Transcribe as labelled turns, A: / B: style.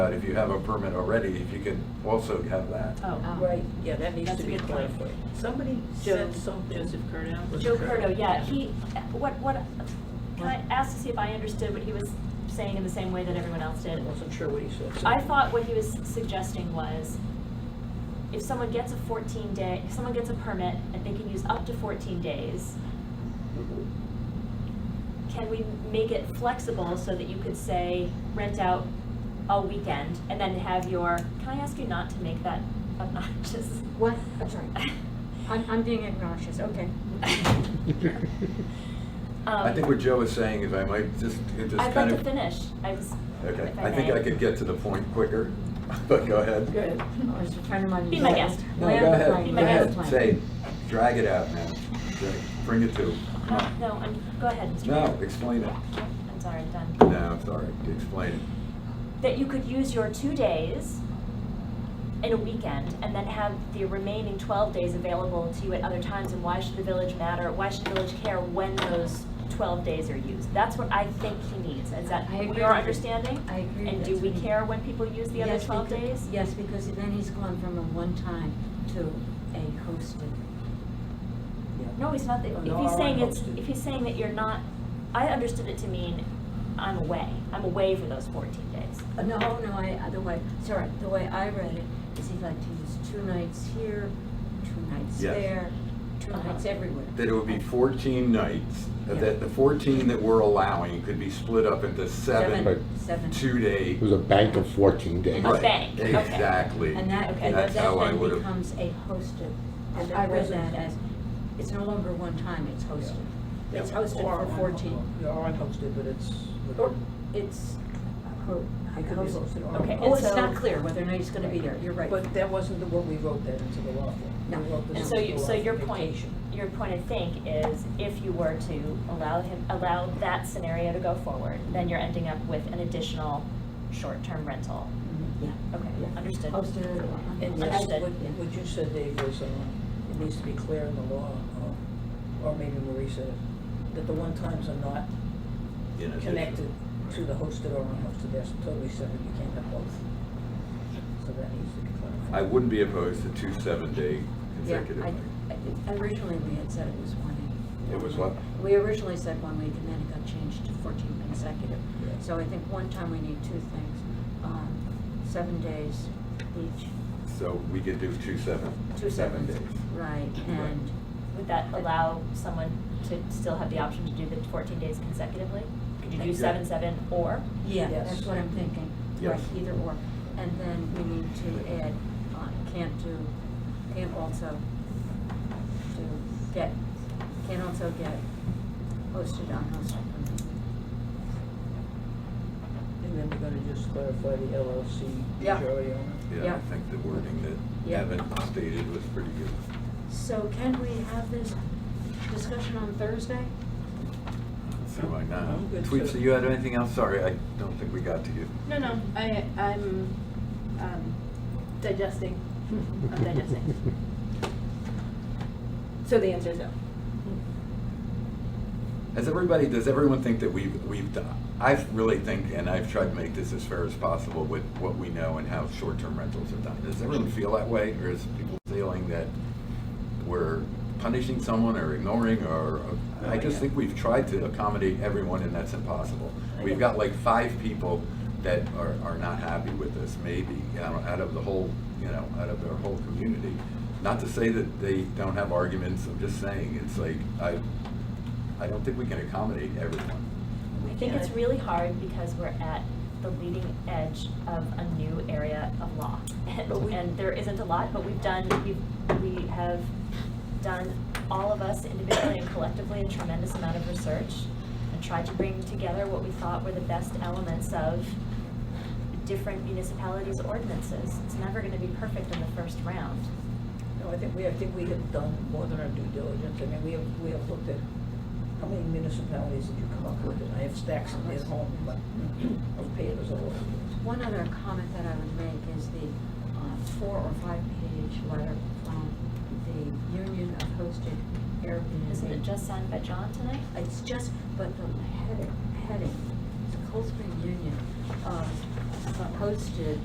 A: But if you have a permit already, if you can also have that.
B: Um,
C: Oh,
D: Right, yeah, that needs
C: That's
D: to
C: a
D: be
C: good
D: applied for.
C: point.
D: Somebody
C: Joe,
D: said something.
C: Joseph Curdo.
D: Was
B: Joe
D: correct.
B: Curto, yeah, he, what, what, can I ask to see if I understood what he was saying in the same way that everyone else
D: I
B: did?
D: wasn't sure what he said. so-
B: I thought what he was suggesting was, if someone gets a fourteen day, if someone gets a permit and they can use up to fourteen days, can we make it flexible so that you could say, rent out a weekend and then have your, can I ask you not to make that obnoxious? Um,
E: What? I'm sorry. I'm, I'm being obnoxious, okay. Oh,
A: I think
B: Um,
A: what Joe is saying is I might just, it just
B: I'd like
A: kind
B: to
A: of.
B: finish, I was,
A: Okay,
B: if I
A: I think
B: may.
A: I could get to the point quicker, but go ahead.
E: Good. I was trying to remind you.
B: Be my guest.
A: No,
E: Land
A: go
E: plan,
A: ahead,
B: Be
A: go
B: my guest.
A: ahead, say, drag it out, man, Say, bring it to. Come
B: Uh,
A: on.
B: No, I'm, go ahead, Mr.
A: No,
B: Mayor.
A: explain it.
B: I'm sorry, I'm done.
A: No, I'm sorry, explain it.
B: That you could use your two days in a weekend and then have the remaining twelve days available to you at other times, and why should the village matter, why should the village care when those twelve days are used? That's what I think he needs, is that
E: I agree
B: we are
E: with you.
B: understanding?
E: I agree,
B: And do
E: that's
B: we
E: what he-
B: care when people use the other
E: Yes,
B: twelve
E: becau-
B: days?
E: Yes, because then he's gone from a one-time to a hosted.
B: No, he's not,
D: Oh,
B: if
D: no,
B: he's
D: I
B: saying
D: want
B: it's,
D: hosted.
B: if he's saying that you're not, I understood it to mean, I'm away, I'm away for those fourteen days.
E: Uh, No, no, I, uh, the way, sorry, the way I read it is he'd like to use two nights here, two nights
A: Yes.
E: there, two
B: Uh-huh.
E: nights everywhere.
A: That it would be 14 nights, that the 14 that we're allowing could be split up into seven
E: Seven, seven.
A: two-day.
F: It was a bank of 14 days.
B: A bank, okay.
A: Exactly.
E: And that,
B: Okay.
E: and
A: That's
E: that
A: how I
E: then
A: would have.
E: becomes a hosted, and
D: I
E: I read
D: wasn't-
E: that as, it's no longer one time, it's hosted. It's
D: Yeah, or
E: hosted for
D: un-
E: fourteen,
D: Yeah, or unhosted, but it's.
E: or it's ho-
D: It could be hosted or
B: Okay,
D: unhosted.
E: Oh,
B: and
E: it's
B: so-
E: not clear whether or not he's gonna be there, you're right.
D: But that wasn't the one we wrote that into the law for.
E: No.
D: We wrote this
B: And so,
D: into
B: you-
D: the
B: so
D: law for
B: your point,
D: vacation.
B: your point, I think, is if you were to allow him, allow that scenario to go forward, then you're ending up with an additional short-term rental.
E: Yeah.
B: Okay,
E: Yeah.
B: understood.
E: Hosted or unhosted.
D: And yes,
B: Understood.
D: what, what you said, Dave, was, uh, it needs to be clear in the law, uh, or maybe Marie said it, that the one-times are not
A: in addition.
D: connected to the hosted or unhosted, that's totally separate, you can't have both. So that needs to be clarified.
A: I wouldn't be opposed to two seven-day
E: Yeah,
A: consecutive.
E: I,
A: nights.
E: I- originally we had said it was one week.
A: It was what?
E: We originally said one week and then it got changed to fourteen consecutive.
A: Yeah.
E: So I think one time we need two things, um, seven days each,
A: So we could do two seven,
E: two
A: seven
E: sevens.
A: days.
E: Right, and,
B: Would that allow someone to still have the option to do the fourteen days consecutively? Could you do
A: Yeah.
B: seven, seven, or?
E: yeah,
D: Yes.
E: that's what I'm thinking.
A: Yes.
E: Right, either or. And then we need to add, uh, can't do, can't also do, get, can't also get hosted, unhosted.
D: And then we're gonna just clarify the LLC
E: Yeah.
D: majority on it.
A: Yeah,
E: Yeah.
A: I think the wording that
E: Yeah.
A: Evan stated was pretty good.
E: So can we have this discussion on Thursday?
A: So why not?
D: I'm good,
A: Tweets,
D: so-
A: do you had anything else? Sorry, I don't think we got to you.
C: No, no, I, I'm, um, digesting, I'm digesting. So the answer is no.
A: As everybody, does everyone think that we've, we've done, I really think, and I've tried to make this as fair as possible with what we know and how short-term rentals are done. Does everyone feel that way, or is people feeling that we're punishing someone or ignoring, or, I just think we've tried to accommodate everyone and that's impossible. We've got like five people that are, are not happy with this, maybe, out out of the whole, you know, out of their whole community. Not to say that they don't have arguments, I'm just saying, it's like, I, I don't think we can accommodate everyone.
B: I think it's really hard because we're at the leading edge of a new area of law. And,
A: But we-
B: and there isn't a lot, but we've done, we've, we have done, all of us individually and collectively, a tremendous amount of research and tried to bring together what we thought were the best elements of different municipalities' ordinances. It's never gonna be perfect in the first round.
D: No, I think we, I think we have done more than our due diligence, I mean, we have, we have looked at, how many municipalities did you come up with? And I have stacks of them at home, but of papers all over.
E: One other comment that I would make is the uh, four or five-page letter from the Union of Hosted Airbnb.
B: Isn't it just signed by John tonight?
E: It's just, but the heading, heading, the Cold Spring Union, uh, posted